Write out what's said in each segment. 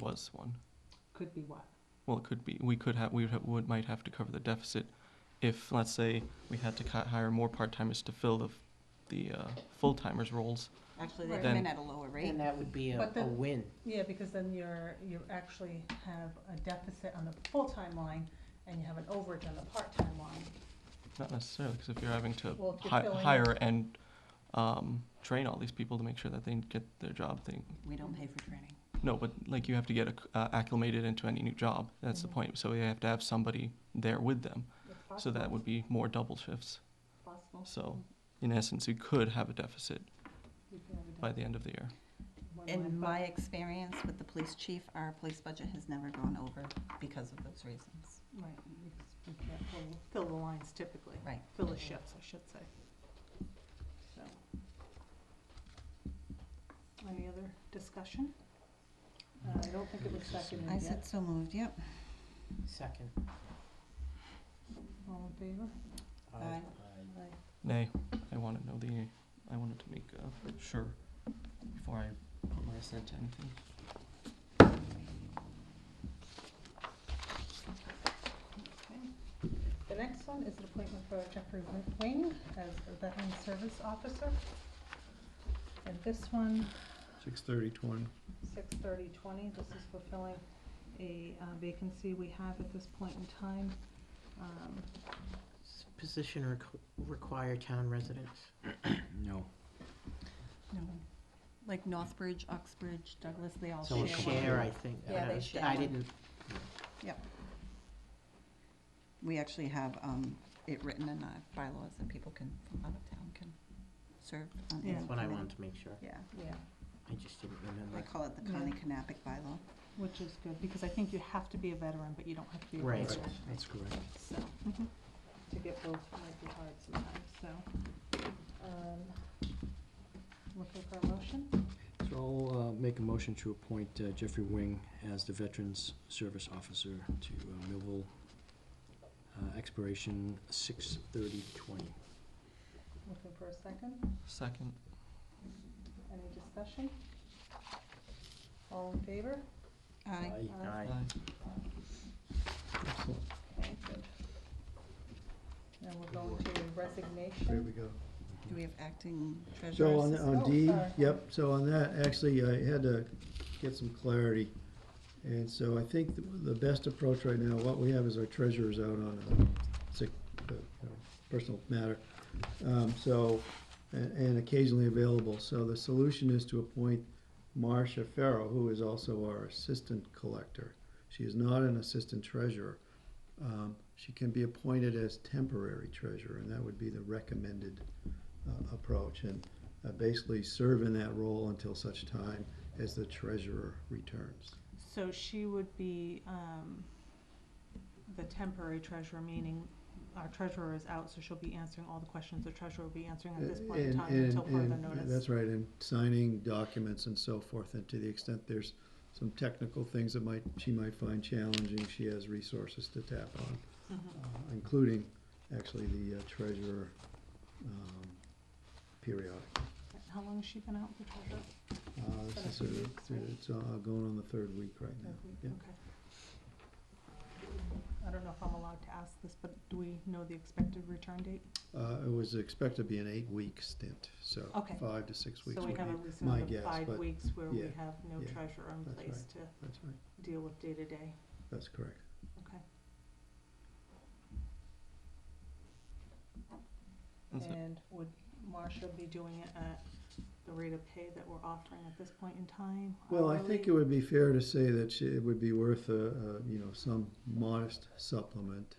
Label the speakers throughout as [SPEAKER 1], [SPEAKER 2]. [SPEAKER 1] was one.
[SPEAKER 2] Could be what?
[SPEAKER 1] Well, it could be, we could have, we would, ha- would, might have to cover the deficit if, let's say, we had to ca- hire more part-timers to fill the, f- the, uh, full-timers roles.
[SPEAKER 3] Actually, they
[SPEAKER 2] Right.
[SPEAKER 3] come in
[SPEAKER 1] Then-
[SPEAKER 3] at a lower rate.
[SPEAKER 4] And that would be a,
[SPEAKER 2] But
[SPEAKER 4] a
[SPEAKER 2] the-
[SPEAKER 4] win.
[SPEAKER 2] Yeah, because then you're, you actually have a deficit on the full-time line and you have an overage on the part-time line.
[SPEAKER 1] Not necessarily, because if you're having to
[SPEAKER 2] Well, if you're
[SPEAKER 1] hi-
[SPEAKER 2] filling-
[SPEAKER 1] hire and, um, train all these people to make sure that they get their job thing.
[SPEAKER 3] We don't pay for training.
[SPEAKER 1] No, but like you have to get acc- uh, acclimated into any new job. That's
[SPEAKER 2] Mhm.
[SPEAKER 1] the point. So you have to have somebody there with them. So that would be more double shifts.
[SPEAKER 2] Possible.
[SPEAKER 1] So in essence, you could have a deficit by the end of the year.
[SPEAKER 3] In my experience with the police chief, our police budget has never gone over because of those reasons.
[SPEAKER 2] Right, because we can't fill- fill the lines typically.
[SPEAKER 3] Right.
[SPEAKER 2] Fill the shifts, I should say. So. Any other discussion? Uh, I don't think it was seconded
[SPEAKER 3] I
[SPEAKER 2] yet.
[SPEAKER 3] said so moved, yep.
[SPEAKER 4] Second.
[SPEAKER 2] All in favor?
[SPEAKER 4] Uh,
[SPEAKER 3] Aye.
[SPEAKER 1] Nay, I want to know the, I wanted to make uh, sure before I put my assent to anything.
[SPEAKER 2] Okay. The next one is an appointment for Jeffrey Wi- Wing as a veteran service officer. And this one,
[SPEAKER 5] Six thirty twenty.
[SPEAKER 2] six thirty twenty, this is fulfilling a uh, vacancy we have at this point in time. Um,
[SPEAKER 4] Does Position requ- require town residents.
[SPEAKER 5] No.
[SPEAKER 3] No. Like Northbridge, Uxbridge, Douglas, they all
[SPEAKER 4] So
[SPEAKER 3] share one.
[SPEAKER 4] a share, I think.
[SPEAKER 3] Yeah,
[SPEAKER 4] I
[SPEAKER 3] they
[SPEAKER 4] don't-
[SPEAKER 3] share
[SPEAKER 4] I
[SPEAKER 3] one.
[SPEAKER 4] didn't,
[SPEAKER 3] We actually have um, it written in our bylaws that people can, from out of town can serve on any
[SPEAKER 2] Yeah.
[SPEAKER 4] that's what I
[SPEAKER 3] committee.
[SPEAKER 4] wanted to make sure.
[SPEAKER 3] Yeah,
[SPEAKER 2] Yeah,
[SPEAKER 4] I just didn't
[SPEAKER 3] they
[SPEAKER 4] remember.
[SPEAKER 3] call it the
[SPEAKER 2] Yeah.
[SPEAKER 3] Connie Canapic bylaw.
[SPEAKER 2] which is good, because I think you have to be a veteran, but you don't have to be a
[SPEAKER 4] Right,
[SPEAKER 2] veteran.
[SPEAKER 5] That's correct.
[SPEAKER 2] So,
[SPEAKER 4] Mm-hmm.
[SPEAKER 2] to get both might be hard sometimes, so. um, Looking for a motion?
[SPEAKER 5] So I'll uh, make a motion to appoint uh, Jeffrey Wing as the Veterans Service Officer to uh, Millville, uh, expiration six thirty twenty.
[SPEAKER 2] Looking for a second?
[SPEAKER 1] Second,
[SPEAKER 2] Any discussion? All in favor?
[SPEAKER 3] Aye.
[SPEAKER 2] Aye.
[SPEAKER 1] aye.
[SPEAKER 2] Okay, good. Now we're going to
[SPEAKER 6] There we
[SPEAKER 2] resignation.
[SPEAKER 6] go.
[SPEAKER 3] Do we have acting
[SPEAKER 6] So
[SPEAKER 3] treasurer
[SPEAKER 6] on,
[SPEAKER 3] assistant?
[SPEAKER 2] Oh,
[SPEAKER 6] on D,
[SPEAKER 2] sorry.
[SPEAKER 6] yep, so on that, actually, I had to get some clarity. And so I think the, the best approach right now, what we have is our treasurer's out on a sick, uh, you know, personal matter. Um, so, and, and occasionally available. So the solution is to appoint Marcia Farrow, who is also our assistant collector. She is not an assistant treasurer. Um, she can be appointed as temporary treasurer, and that would be the recommended, uh, approach. And uh, basically serve in that role until such time as the treasurer returns.
[SPEAKER 2] So she would be, um, the temporary treasurer, meaning our treasurer is out, so she'll be answering all the questions the treasurer will be answering at this point in
[SPEAKER 6] And-
[SPEAKER 2] time
[SPEAKER 6] and-
[SPEAKER 2] until further
[SPEAKER 6] and-
[SPEAKER 2] notice.
[SPEAKER 6] That's right, and signing documents and so forth, and to the extent there's some technical things that might, she might find challenging, she has resources to tap on,
[SPEAKER 2] Mhm.
[SPEAKER 6] uh, including actually the uh, treasurer um, periodic.
[SPEAKER 2] How long has she been out, the treasurer?
[SPEAKER 6] Uh, this is sort of- It's uh, going on the third week right now. yeah.
[SPEAKER 2] Okay. I don't know if I'm allowed to ask this, but do we know the expected return date?
[SPEAKER 6] Uh, It was expected to be an eight-week stint, so
[SPEAKER 2] Okay.
[SPEAKER 6] five to six weeks
[SPEAKER 2] So
[SPEAKER 6] would
[SPEAKER 2] we
[SPEAKER 6] be
[SPEAKER 2] have a
[SPEAKER 6] my
[SPEAKER 2] reason of
[SPEAKER 6] guess,
[SPEAKER 2] five
[SPEAKER 6] but-
[SPEAKER 2] weeks where we
[SPEAKER 6] yeah,
[SPEAKER 2] have no
[SPEAKER 6] yeah,
[SPEAKER 2] treasurer in
[SPEAKER 6] that's
[SPEAKER 2] place
[SPEAKER 6] right.
[SPEAKER 2] to
[SPEAKER 6] That's right,
[SPEAKER 2] deal with day-to-day,
[SPEAKER 6] that's correct.
[SPEAKER 2] okay?
[SPEAKER 1] That's it.
[SPEAKER 2] And would Marcia be doing it at the rate of pay that we're offering at this point in time?
[SPEAKER 6] Well, I think it
[SPEAKER 2] hourly?
[SPEAKER 6] would be fair to say that she- it would be worth a, a, you know, some modest supplement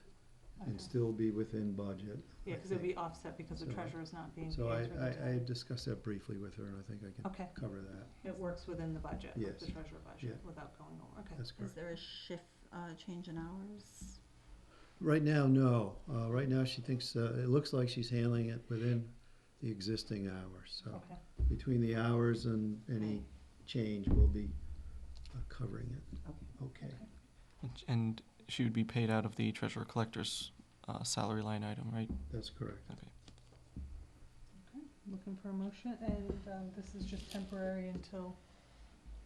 [SPEAKER 6] and
[SPEAKER 2] Okay.
[SPEAKER 6] still be within budget.
[SPEAKER 2] Yeah,
[SPEAKER 6] I
[SPEAKER 2] because it'd
[SPEAKER 6] think.
[SPEAKER 2] be offset because the
[SPEAKER 6] So I-
[SPEAKER 2] treasurer's not being paid.
[SPEAKER 6] So I,
[SPEAKER 2] for the
[SPEAKER 6] I, I
[SPEAKER 2] time.
[SPEAKER 6] had discussed that briefly with her, and I think I can
[SPEAKER 2] Okay,
[SPEAKER 6] cover that.
[SPEAKER 2] it works within the budget,
[SPEAKER 6] Yes.
[SPEAKER 2] the treasurer budget, without going over, okay.
[SPEAKER 6] That's
[SPEAKER 3] Is
[SPEAKER 6] correct.
[SPEAKER 3] there a shift, uh, change in hours?
[SPEAKER 6] Right now, no. Uh, right now, she thinks, uh, it looks like she's handling it within the existing hours. So
[SPEAKER 2] Okay,
[SPEAKER 6] between the hours and any change, we'll be uh, covering it. Okay.
[SPEAKER 1] And- And she would be paid out of the treasurer collector's uh, salary line item, right?
[SPEAKER 6] That's correct.
[SPEAKER 1] Okay.
[SPEAKER 2] looking for a motion, and um, this is just temporary until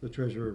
[SPEAKER 6] The treasurer